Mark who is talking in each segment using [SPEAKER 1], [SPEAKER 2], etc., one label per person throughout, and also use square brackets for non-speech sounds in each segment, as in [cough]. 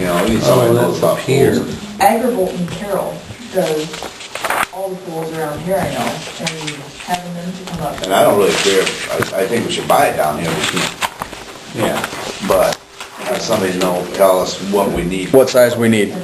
[SPEAKER 1] You know, you saw
[SPEAKER 2] Oh,
[SPEAKER 1] it
[SPEAKER 2] that's
[SPEAKER 1] goes
[SPEAKER 2] up
[SPEAKER 1] up
[SPEAKER 2] here.
[SPEAKER 1] here.
[SPEAKER 3] Agrivolt and Carroll does all the pools around here, I know, and having them to come up.
[SPEAKER 1] And I don't really care, if- I, I think we should buy it down here, we can,
[SPEAKER 2] Yeah.
[SPEAKER 1] but have somebody know, tell us what we need.
[SPEAKER 4] What size we need?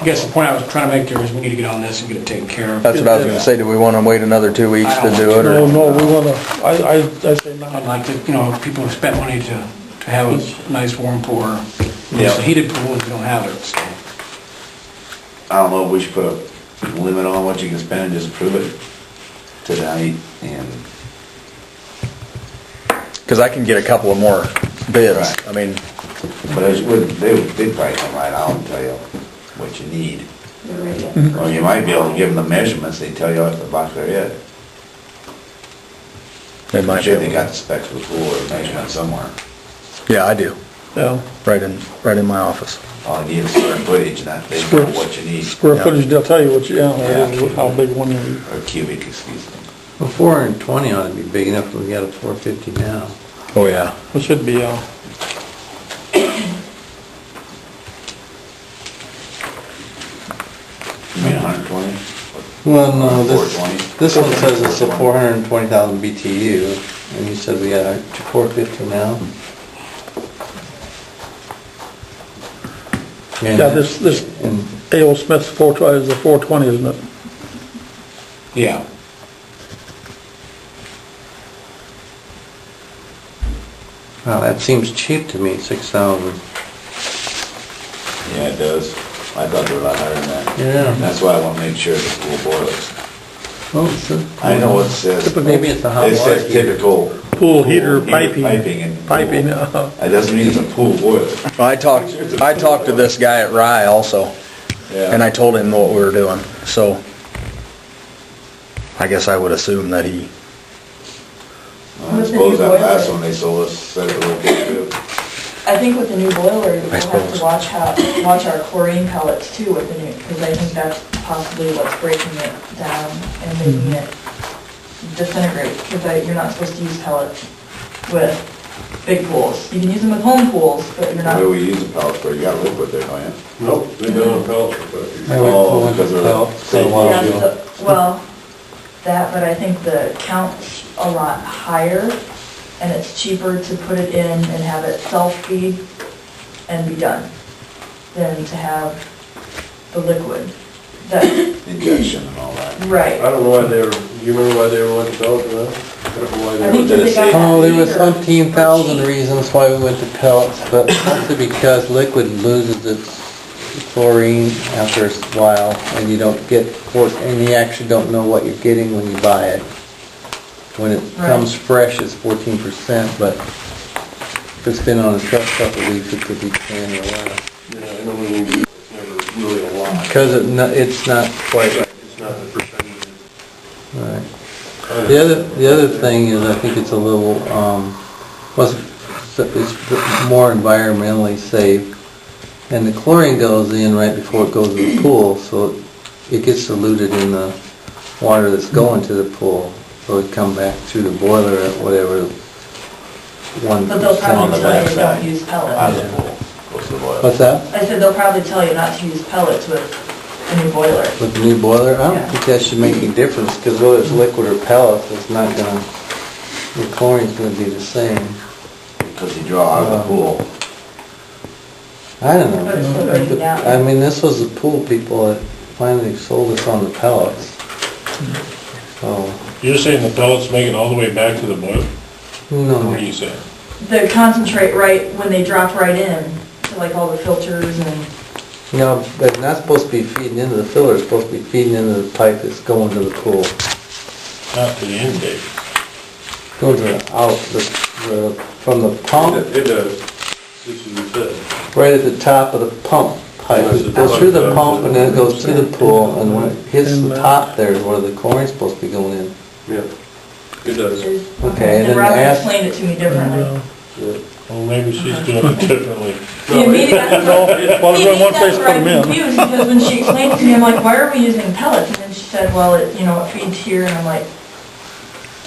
[SPEAKER 2] I guess the point I was trying to make there is we need to get on this and get it taken care of.
[SPEAKER 4] That's what I was gonna say, do we wanna wait another two weeks to do it,
[SPEAKER 5] No,
[SPEAKER 4] or?
[SPEAKER 5] no, we wanna, I, I, I say
[SPEAKER 2] I'd
[SPEAKER 5] not.
[SPEAKER 2] like to, you know, people have spent money to, to have a nice warm pool. It's
[SPEAKER 1] Yeah.
[SPEAKER 2] a heated pool, we don't have it, so.
[SPEAKER 1] I don't know, we should put a limit on what you can spend and just prove it tonight and,
[SPEAKER 4] Cause I can get a couple of more bids, I mean,
[SPEAKER 1] but I just would, they would, they'd probably come right out and tell you what you need. Or you might be able to give them the measurements, they tell you off the box they're in.
[SPEAKER 4] they
[SPEAKER 1] I'm
[SPEAKER 4] might be.
[SPEAKER 1] sure they got
[SPEAKER 4] able
[SPEAKER 1] the specs before, or measurement somewhere.
[SPEAKER 4] to- Yeah, I do,
[SPEAKER 5] Yeah,
[SPEAKER 4] right in, right in my office.
[SPEAKER 1] All you need is square footage and that, they know what you need,
[SPEAKER 5] square footage, they'll tell you what you, yeah,
[SPEAKER 1] Yeah.
[SPEAKER 5] how big one you need.
[SPEAKER 1] or cubic, excuse me.
[SPEAKER 6] Well, four hundred and twenty ought to be big enough, we got a four fifty now.
[SPEAKER 4] Oh, yeah.
[SPEAKER 5] It should be, uh,
[SPEAKER 1] You mean hundred twenty?
[SPEAKER 6] Well, no, this,
[SPEAKER 1] 420.
[SPEAKER 6] this one says it's a four hundred and twenty thousand BTU, and you said we got a four fifty now?
[SPEAKER 5] yeah, this, this
[SPEAKER 6] And
[SPEAKER 5] A.O. Smith's four twenty, is a four twenty, isn't it?
[SPEAKER 2] Yeah.
[SPEAKER 6] Wow, that seems cheap to me, six thousand.
[SPEAKER 1] Yeah, it does. I thought they were a lot higher than that.
[SPEAKER 6] Yeah.
[SPEAKER 1] That's why I wanna make sure the pool boilers.
[SPEAKER 6] Oh, so.
[SPEAKER 1] I know it says.
[SPEAKER 6] Typical- Maybe it's the hot
[SPEAKER 1] It
[SPEAKER 6] water
[SPEAKER 1] says
[SPEAKER 6] heater.
[SPEAKER 1] typical.
[SPEAKER 5] Pool heater piping.
[SPEAKER 1] Piping and.
[SPEAKER 5] Piping, uh,
[SPEAKER 1] That doesn't mean it's a pool boiler.
[SPEAKER 4] I talked, I talked to this guy at Rye also, and I told him what we were doing, so. I guess I would assume that he,
[SPEAKER 1] I suppose that last one they sold us said it was good too.
[SPEAKER 3] I think with the new boiler, we'll
[SPEAKER 4] I
[SPEAKER 3] have
[SPEAKER 4] suppose.
[SPEAKER 3] to watch how, watch our chlorine pellets too with the new, because I think that's possibly what's breaking it down and making it disintegrate, because you're not supposed to use pellets with big pools. You can use them with home pools, but you're
[SPEAKER 1] The
[SPEAKER 3] not.
[SPEAKER 1] way we use a pellet spray, you got liquid there, don't you?
[SPEAKER 7] Nope, they've been on pallets for quite a few.
[SPEAKER 6] I would
[SPEAKER 1] Oh,
[SPEAKER 6] pull it
[SPEAKER 1] because they're
[SPEAKER 6] out for a while
[SPEAKER 3] That's
[SPEAKER 6] ago.
[SPEAKER 3] the- Well, that, but I think the count's a lot higher, and it's cheaper to put it in and have it self-feed and be done than to have the liquid. That,
[SPEAKER 1] Injection and all that.
[SPEAKER 7] I
[SPEAKER 3] right.
[SPEAKER 7] don't know why they were, you remember why they were on the ballot for that? I don't know why
[SPEAKER 3] I
[SPEAKER 7] they
[SPEAKER 3] think
[SPEAKER 7] were.
[SPEAKER 3] that they got that
[SPEAKER 6] Oh, there was
[SPEAKER 3] either.
[SPEAKER 6] umpteen thousand reasons why we went to pellets, but mostly because liquid loses its chlorine after a while, and you don't get, for- and you actually don't know what you're getting when you buy it. When it
[SPEAKER 3] Right.
[SPEAKER 6] comes fresh, it's fourteen percent, but if it's been on a truck a couple of weeks, it could be ten or less.
[SPEAKER 7] Yeah, I know we, it's never really a lot.
[SPEAKER 6] Because it, no- it's not quite right.
[SPEAKER 7] It's not the percentage.
[SPEAKER 6] Right. The other, the other thing is, I think it's a little, um, was, it's more environmentally safe. And the chlorine goes in right before it goes to the pool, so it gets diluted in the water that's going to the pool. So it come back through the boiler at whatever, one
[SPEAKER 3] But they'll
[SPEAKER 1] On
[SPEAKER 3] probably
[SPEAKER 1] the
[SPEAKER 6] percent.
[SPEAKER 3] tell you
[SPEAKER 1] backside.
[SPEAKER 3] don't
[SPEAKER 1] Out
[SPEAKER 3] use pellets.
[SPEAKER 1] of the pool, goes to the boiler.
[SPEAKER 6] What's that?
[SPEAKER 3] I said they'll probably tell you not to use pellets with the new boiler.
[SPEAKER 6] With the new boiler? I
[SPEAKER 3] Yeah.
[SPEAKER 6] don't think that should make any difference, because whether it's liquid or pellets, it's not gonna, the chlorine's gonna be the same.
[SPEAKER 1] Cause you draw out of the pool.
[SPEAKER 6] I don't know.
[SPEAKER 3] But it's still breaking down.
[SPEAKER 6] I mean, this was the pool people that finally sold us on the pellets. So,
[SPEAKER 7] You're saying the pellets make it all the way back to the boiler?
[SPEAKER 6] no,
[SPEAKER 7] you saying?
[SPEAKER 3] The concentrate right, when they drop right in, to like all the filters and,
[SPEAKER 6] no, but not supposed to be feeding into the filler, it's supposed to be feeding into the pipe that's going to the pool.
[SPEAKER 7] Not to the end, Dave.
[SPEAKER 6] Going to the, out, the, the, from the pump,
[SPEAKER 7] It does. This is the,
[SPEAKER 6] right at the top of the pump pipe. It goes through the pump and then it goes to the pool, and when it hits the top there is where the chlorine's supposed to be going in.
[SPEAKER 7] yeah, it does.
[SPEAKER 6] Okay,
[SPEAKER 3] and
[SPEAKER 6] then
[SPEAKER 3] Robin
[SPEAKER 6] ask-
[SPEAKER 3] explained it to me differently.
[SPEAKER 7] Well, maybe she's doing it [laughs] differently.
[SPEAKER 3] Yeah, maybe that's what-
[SPEAKER 5] well,
[SPEAKER 3] Maybe
[SPEAKER 5] in one place
[SPEAKER 3] that's
[SPEAKER 5] put
[SPEAKER 3] where I'm
[SPEAKER 5] them in.
[SPEAKER 3] confused, because when she explained to me, I'm like, why are we using pellets? And then she said, well, it, you know, it feeds here, and I'm like,